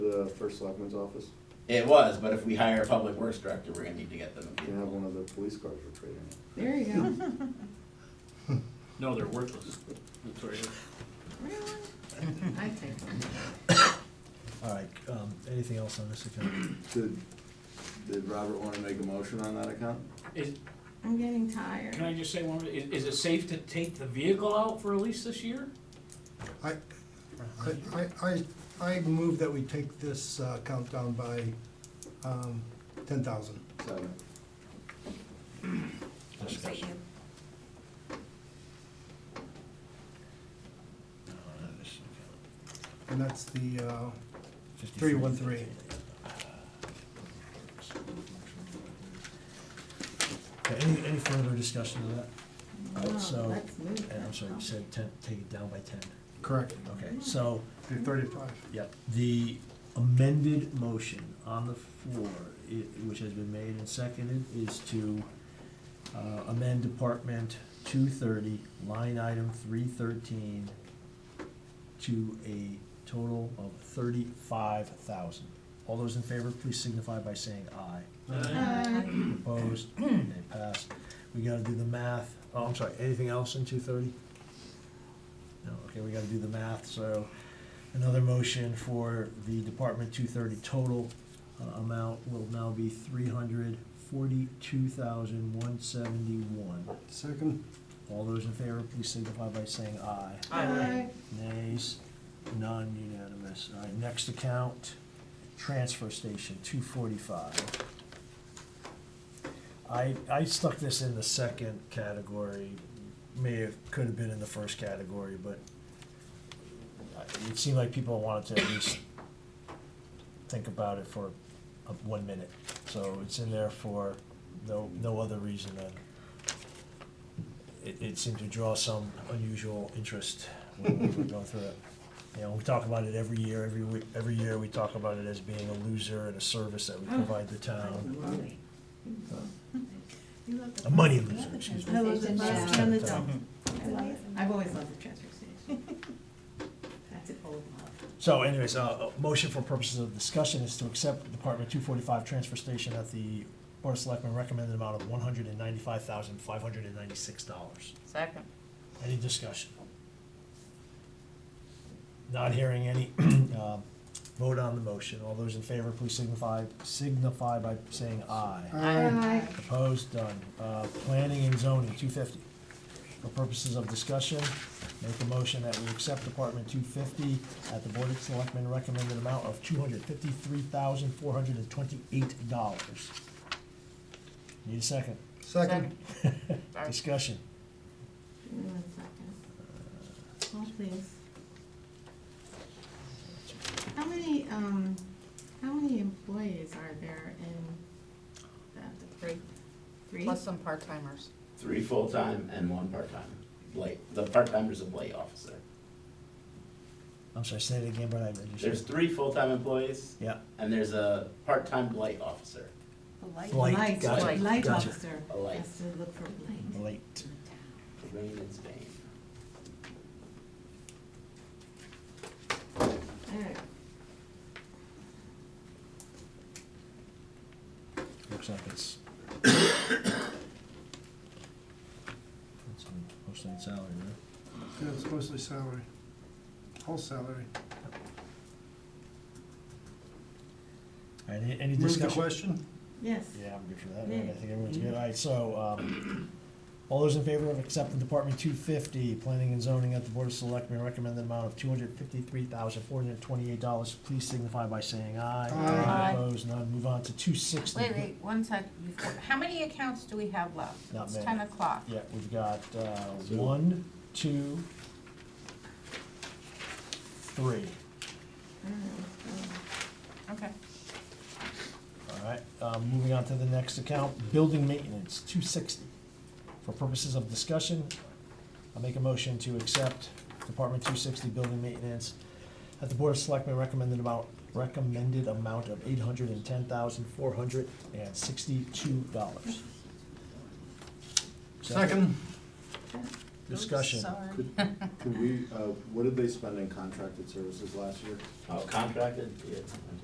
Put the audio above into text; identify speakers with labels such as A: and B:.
A: the first selectman's office?
B: It was, but if we hire a public works director, we're gonna need to get them.
A: You can have one of the police cars for trading.
C: There you go.
D: No, they're worthless. That's right.
C: Really? I think.
E: All right, um, anything else on this account?
A: Did, did Robert wanna make a motion on that account?
D: Is,
C: I'm getting tired.
D: can I just say one, more- is, is it safe to take the vehicle out for a lease this year?
F: I, I, I, I move that we take this uh, count down by um, ten thousand.
A: Seven.
E: Discussion.
F: And that's the, uh,
E: 313. Okay, any, any further discussion of that? All right,
C: No,
E: Oh, so,
C: let's move
E: and I'm
C: that
E: sorry, you
C: up.
E: said ten, take it down by ten.
F: correct,
E: Okay, so,
F: the thirty-five.
E: yep, the amended motion on the floor, i which has been made and seconded, is to uh, amend Department two thirty, line item three thirteen, to a total of thirty-five thousand. All those in favor, please signify by saying aye.
C: Uh,
E: Opposed, they pass. We gotta do the math. Oh, I'm sorry, anything else in two thirty? No, okay, we gotta do the math, so another motion for the Department two thirty total uh, amount will now be three hundred forty-two thousand one seventy-one.
F: Second,
E: All those in favor, please signify by saying aye.
C: uh,
E: Nays, none unanimous. All right, next account, transfer station, two forty-five. I, I stuck this in the second category, may have, could have been in the first category, but I- it seemed like people wanted to at least think about it for uh, one minute. So it's in there for no, no other reason than it, it seemed to draw some unusual interest when we were going through it. You know, we talk about it every year, every week, every year we talk about it as being a loser and a service that we provide the town. A money loser, excuse me.
C: I love the
G: Station
C: bus
G: now.
C: and the dump. I love it. I've always loved the transfer station. That's an old love.
E: So anyways, uh, a motion for purposes of discussion is to accept Department two forty-five transfer station at the Board of Selectmen recommended amount of one hundred and ninety-five thousand, five hundred and ninety-six dollars.
G: Second.
E: Any discussion? Not hearing any, um, vote on the motion. All those in favor, please signify, signify by saying aye.
C: Aye.
E: Opposed, done. Uh, Planning and zoning, two fifty. For purposes of discussion, make a motion that we accept Department two fifty at the Board of Selectmen recommended amount of two hundred fifty-three thousand, four hundred and twenty-eight dollars. Need a second?
F: second,
G: Sorry.
E: Discussion.
C: Give me one second. Oh, please. How many, um, how many employees are there in that, the three? Three?
G: Plus some part-timers.
B: Three full-time and one part-time. Blight, the part-timer's a blight officer.
E: I'm sorry, say it again, but I registered.
B: There's three full-time employees
E: Yeah.
B: and there's a part-time blight officer.
E: Light,
C: Light,
E: gotcha,
C: light light
E: gotcha.
C: officer
B: A light.
C: has to look for light.
E: Late.
B: Rain and Spain.
C: Alright,
E: Looks like it's. That's on Posted salary, right?
F: yeah, it's mostly salary, whole salary.
E: All right, any- any
F: Move the
E: discussion?
F: question?
C: yes.
E: Yeah, I'm good for that,
C: Yeah.
E: right? I think everyone's good. All right, so, um, all those in favor of accepting Department two fifty, planning and zoning at the Board of Selectmen, recommended amount of two hundred fifty-three thousand, four hundred twenty-eight dollars, please signify by saying aye.
F: Aye.
G: Aye.
E: Opposed, none, move on to two sixty.
G: Wait, wait, one sec. You've- How many accounts do we have left?
E: Not
G: It's
E: many.
G: ten o'clock.
E: Yeah, we've got uh,
B: Two.
E: one, two, three.
G: Okay.
E: All right, um, moving on to the next account, building maintenance, two sixty. For purposes of discussion, I'll make a motion to accept Department two sixty building maintenance at the Board of Selectmen recommended amount, recommended amount of eight hundred and ten thousand, four hundred and sixty-two dollars.
F: Second,
E: Discussion.
G: Sorry.
A: Could, could we, uh, what did they spend in contracted services last year?
B: Oh, contracted, yeah,